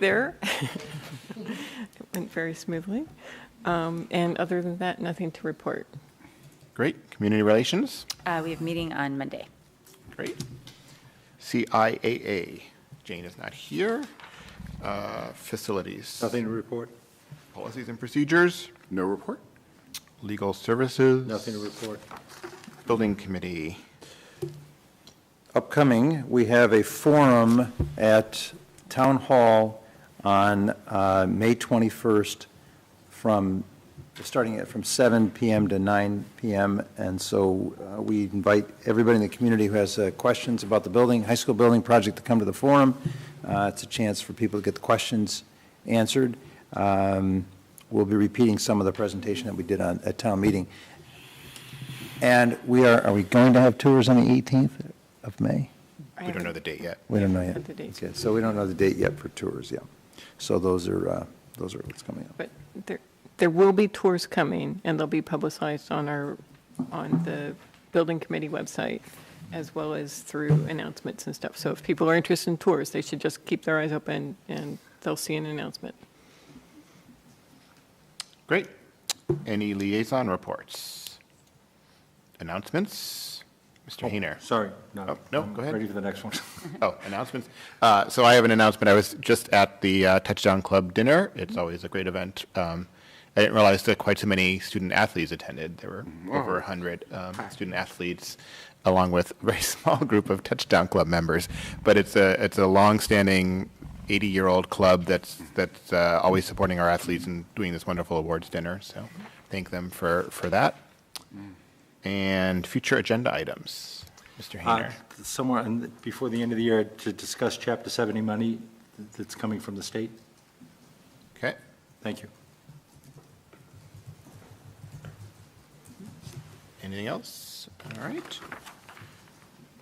there. It went very smoothly. Um, And other than that, nothing to report. Great. Community relations? Uh, We have meeting on Monday. Great. CIAA, Jane is not here. Uh, Facilities. Nothing to report? Policies and procedures, No report. legal services. Nothing to report. Building committee. Upcoming, we have a forum at Town Hall on uh, May 21st from, starting at from 7 PM to 9 PM. And so uh, we invite everybody in the community who has uh, questions about the building, high school building project to come to the forum. Uh, It's a chance for people to get the questions answered. Um, We'll be repeating some of the presentation that we did on, at town meeting. And we are, are we going to have tours on the 18th of May? We don't know the date yet. We don't know Not yet. the date. Okay, So we don't know the date yet for tours, yeah. So those are, uh, those are what's coming up. But there, there will be tours coming, and they'll be publicized on our, on the building committee website, as well as through announcements and stuff. So if people are interested in tours, they should just keep their eyes open, and they'll see an announcement. Great. Any liaison reports? Announcements? Oh, Mr. Hayner? Sorry, no. Oh, no, I'm go ahead. Ready for the next one. Oh, announcements. Uh, So I have an announcement. I was just at the uh, Touchdown Club dinner. It's always a great event. Um, I didn't realize that quite so many student athletes attended. There were over 100 um, student athletes, along with a very small group of Touchdown Club members. But it's a, it's a longstanding 80-year-old club that's, that's uh, always supporting our athletes and doing this wonderful awards dinner. So thank them for, for that. And future agenda items, Mr. Uh, Hayner. Somewhere, in the- before the end of the year, to discuss Chapter 70 money that's coming from the state. Okay. Thank you. Anything else? All right.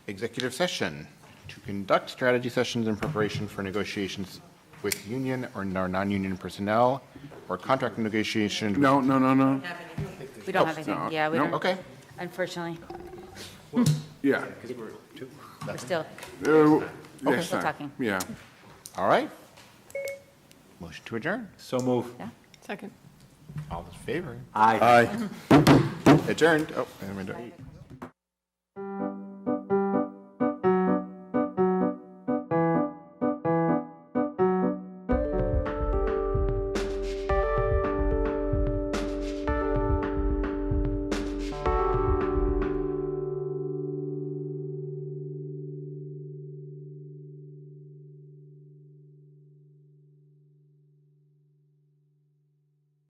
Executive session, to conduct strategy sessions in preparation for negotiations with union or non- non-union personnel or contract negotiations. No, no, no, no. We don't have anything, Oh, no, yeah, we no. don't. Okay. Unfortunately, Yeah. we're still, Uh, Next Still time. talking. Yeah. All right. Motion to adjourn. So move. yeah. Second. All in favor? Aye. Aye. Adjourned. Oh, and we don't.